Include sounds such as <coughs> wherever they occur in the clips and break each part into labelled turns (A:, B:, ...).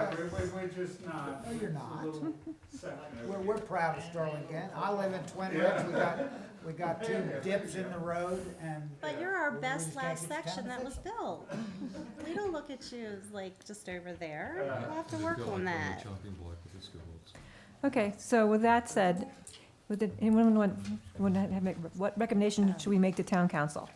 A: I just nod?
B: No,
A: It's
B: you're
A: a
B: not.
A: little second.
B: We're, we're proud of Sterlington. I live in Twin Ridge. We got, we got two dips in the road and.
C: But you're our
B: We
C: best
B: just gotta
C: last
B: get the town
C: section
B: to
C: that
B: fix
C: was
B: it.
C: built. We don't look at you as like just over there.
A: Yeah.
C: We'll have to work on that.
D: Okay, so with that said, would the- anyone want, would have, have make- what recommendation should we make to town council?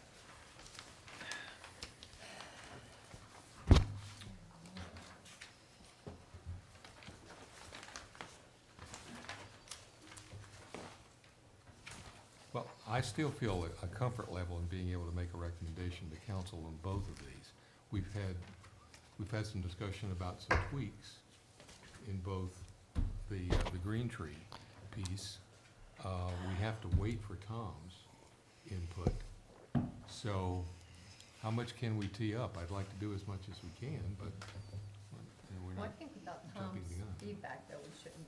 E: Well, I still feel a- a comfort level in being able to make a recommendation to council on both of these. We've had, we've had some discussion about some tweaks in both the, uh, the green tree piece. Uh, We have to wait for Tom's input. So how much can we tee up? I'd like to do as much as we can, but you know, we're
F: Well, I
E: not,
F: think without
E: jumping
F: Tom's
E: the gun.
F: feedback, though, we shouldn't,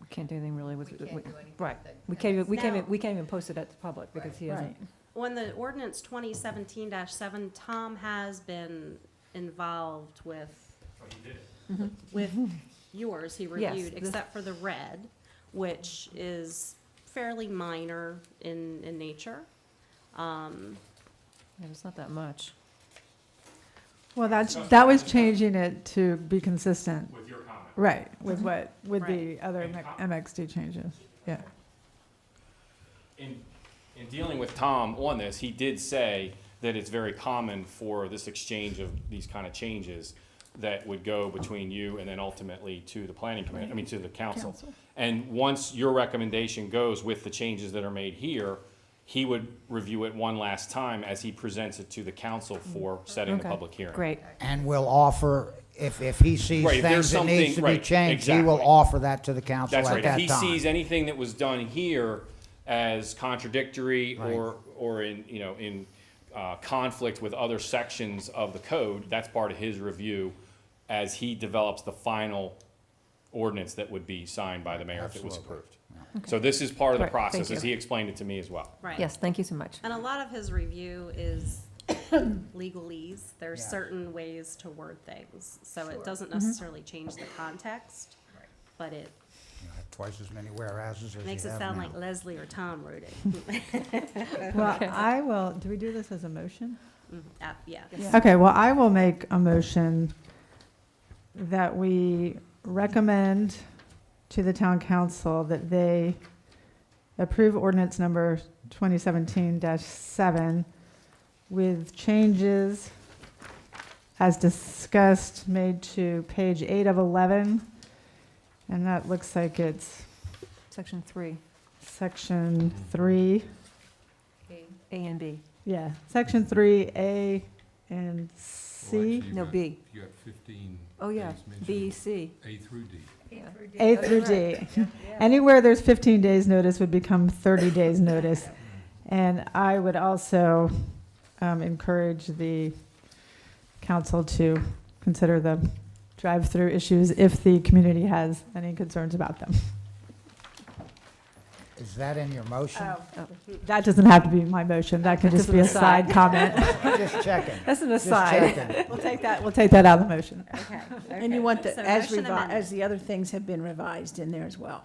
D: We Can't do anything really
F: we
D: with,
F: can't do
D: with-
F: anything.
D: right.
F: with it.
D: we can't, even- we can't,
C: Now-
D: even- we can't even post it at the public because he
B: Right.
D: hasn't.
C: On the ordinance twenty seventeen seven, Tom has been involved with. With yours, he reviewed,
D: this-
C: except for the red, which is fairly minor in, in nature. Um,
D: Yeah, It's not that much.
G: Well, that's, that was changing it to be consistent,
H: with your comment.
G: right, with what, with
C: Right.
G: the other MXD changes, yeah.
H: In, in dealing with Tom on this, he did say that it's very common for this exchange of these kind of changes that would go between you and then ultimately to the planning committee, I mean, to the council.
G: Council.
H: And once your recommendation goes with the changes that are made here, he would review it one last time as he presents it to the council for setting the
D: Okay,
H: public hearing.
D: Great,
B: And will offer, if, if he sees
H: Right, if
B: things
H: there's
B: that needs
H: something-
B: to be
H: right,
B: changed, he will
H: exactly.
B: offer that to the council at
H: That's
B: that
H: right.
B: time.
H: If he sees anything that was done here as contradictory or, or in, you know, in uh, conflict with other sections of the code, that's part of his review as he develops the final ordinance that would be signed by the mayor if it was approved. So this is part of the
D: Right, thank
H: process, as
D: you.
H: he explained it to me as well.
C: right.
D: yes, thank you so much.
C: And a lot of his review
I: <coughs>
C: is legalese. There's
B: Yeah.
C: certain ways to word things, so it
F: Sure.
I: Mm-hmm.
C: doesn't necessarily change the context,
F: Right.
C: but it
B: You have Twice as many warehouses as you
C: makes it
B: have
C: sound
B: now.
C: like Leslie or Tom wrote
I: <laughs>
C: it.
G: Well, I will, do we do this as a motion?
C: Mm, uh, Yeah.
G: Okay, well, I will make a motion that we recommend to the town council that they approve ordinance number 2017-7 with changes as discussed, made to page 8 of 11. And that looks like it's
D: Section three,
G: section 3,
F: Okay.
D: A and B,
G: yeah, section 3A and
E: Well, actually,
G: C.
E: you
D: no,
E: got-
D: B.
E: You got fifteen
D: Oh, yeah,
E: things mentioned,
D: B, C.
E: A through D.
D: Yeah.
F: Through D.
G: A
D: Oh,
G: through D.
D: right.
G: Anywhere there's 15 days' notice would become 30 days' notice. And I would also um, encourage the council to consider the drive-through issues if the community has any concerns about them.
B: Is that in your motion?
F: Oh.
G: That doesn't have to be my motion, that can just be a side comment.
B: Just checking.
D: That's an
B: Just
D: aside.
B: checking.
G: We'll take that, we'll take that out of the motion.
C: Okay.
I: <laughs> And you want the,
C: So
I: as
C: motion
I: revised,
C: amended.
I: as the other things have been revised in there as well.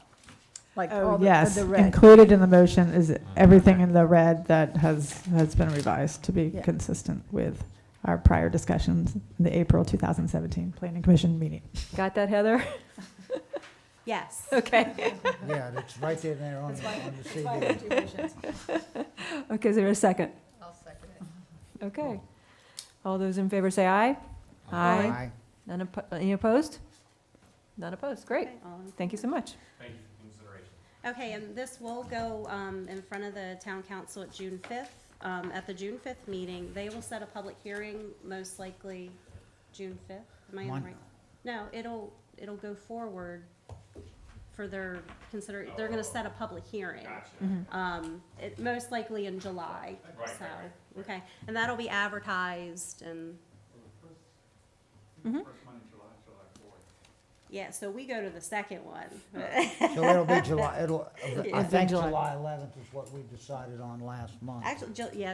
I: Like all
G: Oh,
I: the,
G: yes,
I: the red.
G: included in the motion is everything in the red that has, has been revised to be
I: Yeah.
G: consistent with our prior discussions in the April 2017 Planning Commission meeting.
D: <laughs> Got that, Heather? <laughs>
C: Yes.
D: Okay.
B: Yeah, it's right there, there on the, on the CD. <laughs>
D: Okay, is there a second?
F: I'll second it.
D: Okay. All those in favor say aye? Aye.
B: Aye.
D: None oppo- any opposed? None opposed, great.
C: Okay, all in
D: Thank you so much.
H: Thank you for consideration.
C: Okay, and this will go um, in front of the town council at June 5th. Um, At the June 5th meeting, they will set a public hearing, most likely June 5th. Am I in the
B: Mon-
C: right? No, it'll, it'll go forward for their consider, they're going to set a public hearing. Um, It, most likely in July,
H: Right, right,
C: so,
H: right,
C: okay. And that'll be advertised and,
A: First one in July, July fourth.
C: yeah, so we go to the second one.
B: So it'll be July, it'll, I
D: been
B: think
D: July.
B: July eleventh is what we decided on last month.
C: Actually, Ju- yeah,